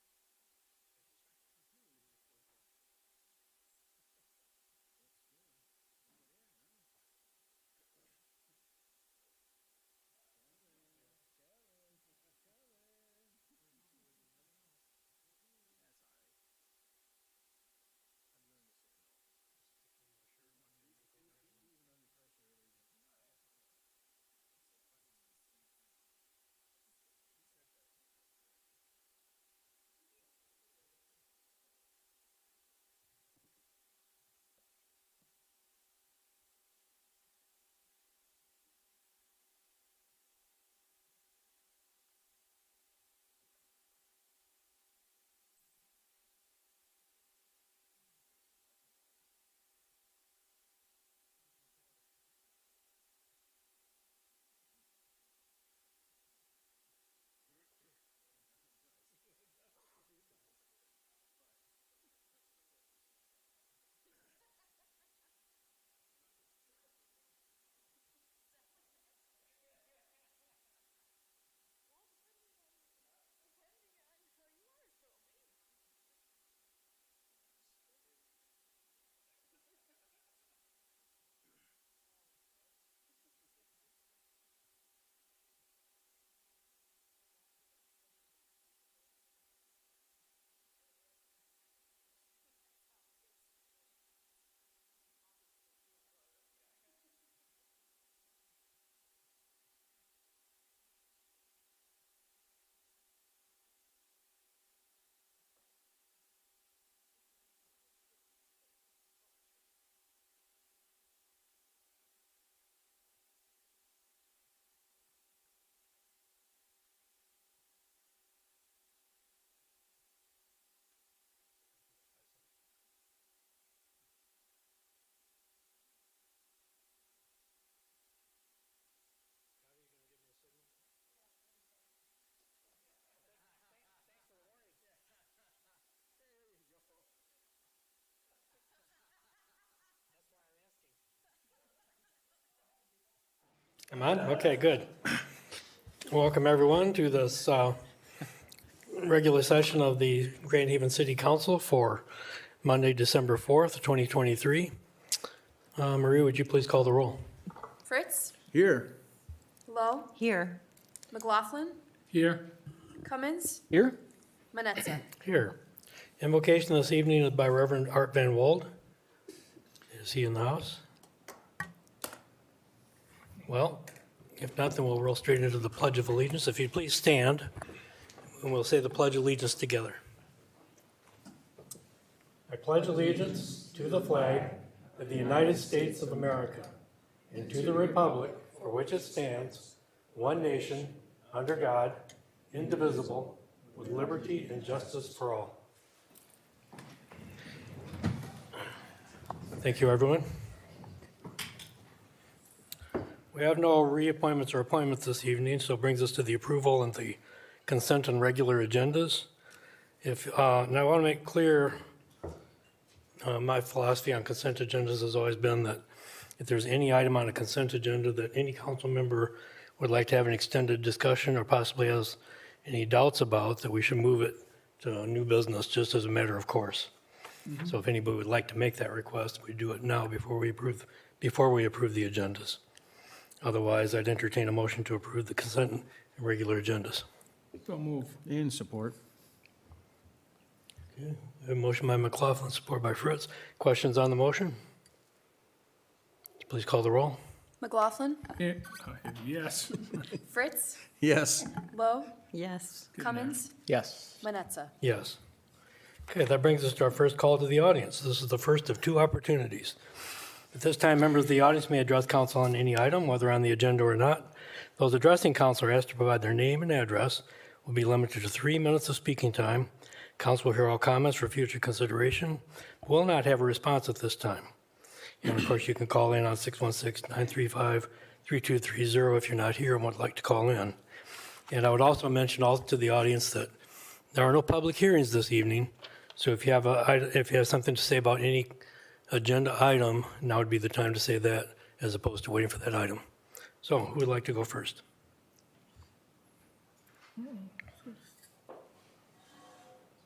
I'm on? Okay, good. Welcome, everyone, to this uh, regular session of the Grand Haven City Council for Monday, December 4th, 2023. Uh, Marie, would you please call the roll? Fritz, Here. Lowe, Here. McLaughlin, Here. Cummins, Here? Manetza. Here. Invocation this evening is by Reverend Art Van Wold. Is he in the house? Well, if not, then we'll roll straight into the Pledge of Allegiance. If you'd please stand, and we'll say the Pledge of Allegiance together. I pledge allegiance to the flag of the United States of America and to the republic for which it stands, one nation, under God, indivisible, with liberty and justice for all. Thank you, everyone. We have no reappointments or appointments this evening, so it brings us to the approval and the consent and regular agendas. If, uh, now I want to make clear, uh, my philosophy on consent agendas has always been that if there's any item on a consent agenda that any council member would like to have an extended discussion or possibly has any doubts about, that we should move it to a new business just as a matter of course. So if anybody would like to make that request, we do it now before we approve, before we approve the agendas. Otherwise, I'd entertain a motion to approve the consent and regular agendas. So move. In support. A motion by McLaughlin, support by Fritz. Questions on the motion? Please call the roll. McLaughlin, oh, Yes. Fritz, Yes. Lowe, Yes. Cummins, Yes. Manetza. Yes. Okay, that brings us to our first call to the audience. This is the first of two opportunities. At this time, members of the audience may address council on any item, whether on the agenda or not. Those addressing council are asked to provide their name and address, will be limited to three minutes of speaking time. Council will hear all comments for future consideration, will not have a response at this time. And of course, you can call in on 616-935-3230 if you're not here and would like to call in. And I would also mention also to the audience that there are no public hearings this evening, so if you have a, if you have something to say about any agenda item, now would be the time to say that as opposed to waiting for that item. So who would like to go first?